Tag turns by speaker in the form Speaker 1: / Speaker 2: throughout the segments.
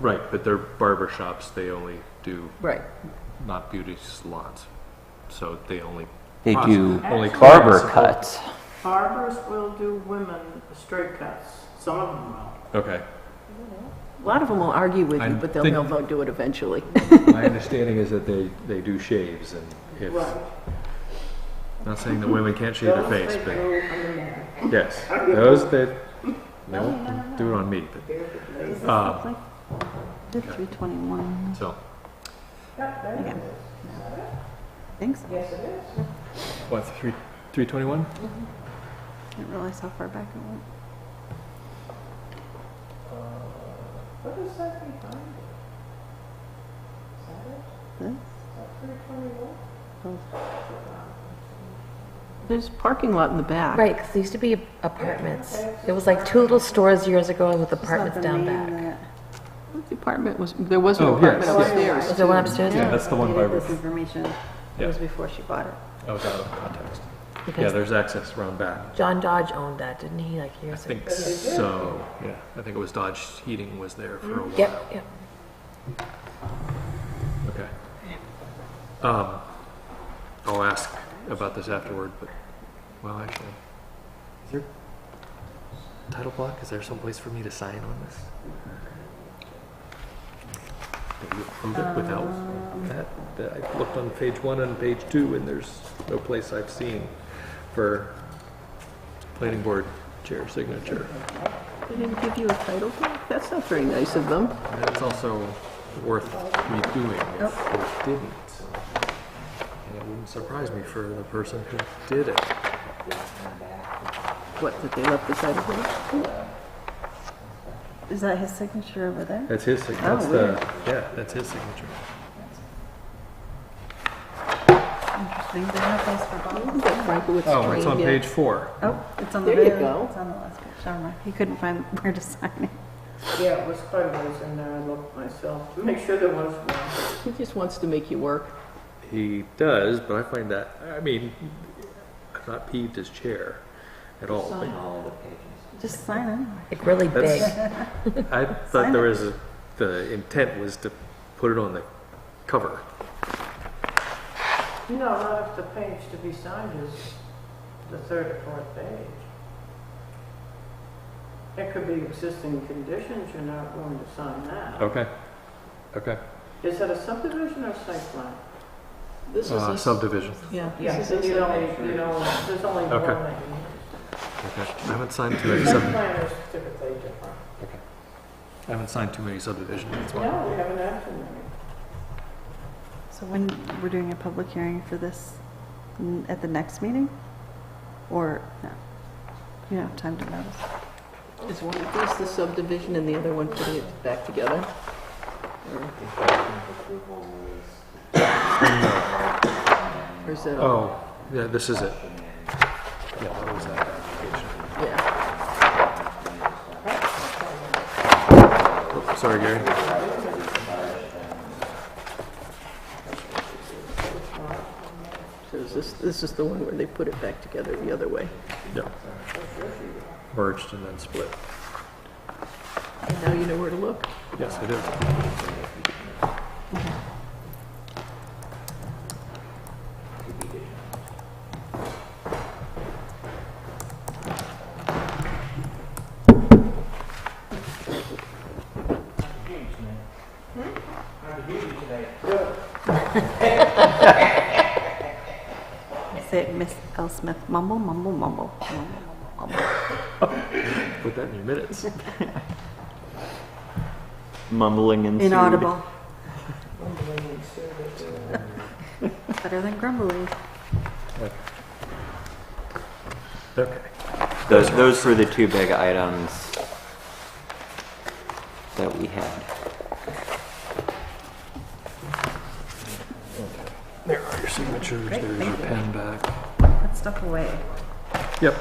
Speaker 1: Right, but they're barber shops, they only do
Speaker 2: Right.
Speaker 1: not beauty salons. So they only.
Speaker 3: They
Speaker 1: process-
Speaker 3: do
Speaker 1: only
Speaker 3: barber
Speaker 1: clients-
Speaker 3: cuts.
Speaker 4: Barbers will do women straight cuts. Some of them will.
Speaker 1: Okay.
Speaker 2: A lot of them will argue with
Speaker 1: I
Speaker 2: you, but they'll,
Speaker 1: think-
Speaker 2: they'll vote do it eventually.
Speaker 1: My understanding is that they, they do shaves and if,
Speaker 4: Right.
Speaker 1: not saying that women can't shave their face, but
Speaker 4: Those they go on the man.
Speaker 1: yes, those that, they won't do it on me, but, um,
Speaker 5: Is it 321?
Speaker 1: so.
Speaker 5: Thanks. I
Speaker 4: Yes, it is.
Speaker 1: What, three, three twenty-one?
Speaker 5: didn't realize how far back it went.
Speaker 4: Uh, What is that behind it? Is that it?
Speaker 5: This? Oh.
Speaker 2: There's parking lot in the back.
Speaker 6: Right, because there used to be apartments. It was like two little stores years ago with
Speaker 5: It's not
Speaker 6: apartments
Speaker 5: the
Speaker 6: down
Speaker 5: name
Speaker 6: back.
Speaker 5: that-
Speaker 2: What Department was, there was an
Speaker 1: Oh,
Speaker 2: apartment
Speaker 1: yes,
Speaker 5: uh,
Speaker 2: upstairs.
Speaker 6: Is there one upstairs?
Speaker 1: Yeah, that's the one
Speaker 5: Dated
Speaker 1: by
Speaker 5: This
Speaker 1: River.
Speaker 5: information, it
Speaker 1: Yeah.
Speaker 5: was before she bought it.
Speaker 1: I was out of context. Yeah,
Speaker 6: Because
Speaker 1: there's access around back.
Speaker 6: John Dodge owned that, didn't he, like
Speaker 1: I
Speaker 6: years ago?
Speaker 1: think so. Yeah, I think it was Dodge Heating was there for a while.
Speaker 6: Yep, yep.
Speaker 1: Okay. Um, I'll ask about this afterward, but, well, actually, is there title block? Is there someplace for me to sign on this? Did you approve it without that? That- I looked on page one and page two, and there's no place I've seen for planning board chair signature.
Speaker 2: They didn't give you a title block? That's not very nice of them.
Speaker 1: And it's also worth redoing if it didn't. And it wouldn't surprise me for the person who did it.
Speaker 2: What, that they left the title block?
Speaker 5: Is that his signature over there?
Speaker 1: That's his signature.
Speaker 2: that's the- weird.
Speaker 1: Yeah, that's his signature.
Speaker 5: Interesting, they have those for bottles.
Speaker 2: That Frankowitz
Speaker 1: Oh, it's on
Speaker 2: Train, yeah.
Speaker 1: page four.
Speaker 5: Oh, it's on the
Speaker 2: There you
Speaker 5: very-
Speaker 2: go.
Speaker 5: It's on the last page, never mind. He couldn't find where to sign it.
Speaker 4: Yeah, it was fundraising there. I looked myself to make sure there was one.
Speaker 2: He just wants to make you work.
Speaker 1: He does, but I find that, I mean, I'm not peeved as chair at all.
Speaker 5: Just sign anyway.
Speaker 6: Like really big.
Speaker 1: That's- I thought there was, a- the intent was to put it on the cover.
Speaker 4: No, not if the page to be signed is the third or fourth page. It could be existing conditions. You're not going to sign that.
Speaker 1: Okay, okay.
Speaker 4: Is that a subdivision or site plan?
Speaker 2: This is
Speaker 1: Uh,
Speaker 2: a-
Speaker 1: subdivision.
Speaker 2: Yeah. this
Speaker 4: Yes,
Speaker 2: is
Speaker 4: you
Speaker 2: a-
Speaker 4: don't, you know, there's only one
Speaker 1: Okay.
Speaker 4: that you need.
Speaker 1: Okay. I haven't signed too many
Speaker 4: Site
Speaker 1: sub,
Speaker 4: plan is typically different.
Speaker 1: I haven't signed too many subdivisions, that's why.
Speaker 4: No, we haven't acted on it.
Speaker 5: So when we're doing a public hearing for this, n- at the next meeting? Or, no? You don't have time to notice.
Speaker 2: Is one of these the subdivision and the other one putting it back together? Or- Or is it, all-
Speaker 1: Oh, yeah, this is it. Yeah, that was that application.
Speaker 2: yeah.
Speaker 1: Oops, Oh, Sorry, Gary.
Speaker 2: So is this, this is the one where they put it back together the other way?
Speaker 1: Yeah. Merged and then split.
Speaker 2: And now you know where to look?
Speaker 1: Yes, I do.
Speaker 5: Say it, Miss L. Smith, mumble, mumble, mumble, mumble, mumble.
Speaker 1: Put that in your minutes.
Speaker 3: Mumbling and
Speaker 5: Inaudible. Better than grumbling.
Speaker 1: Okay.
Speaker 3: Those, those were the two big items that we had.
Speaker 1: There are your signatures, there's your pen back.
Speaker 5: Put stuff away.
Speaker 1: Yep.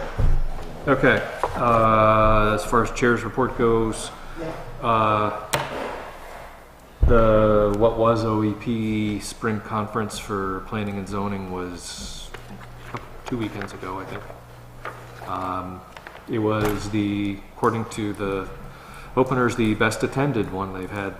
Speaker 1: Okay, uh, as far as chair's report goes, uh, the, what was OEP spring conference for planning and zoning was two weekends ago, I think. Um, It was the, according to the openers, the best attended one they've had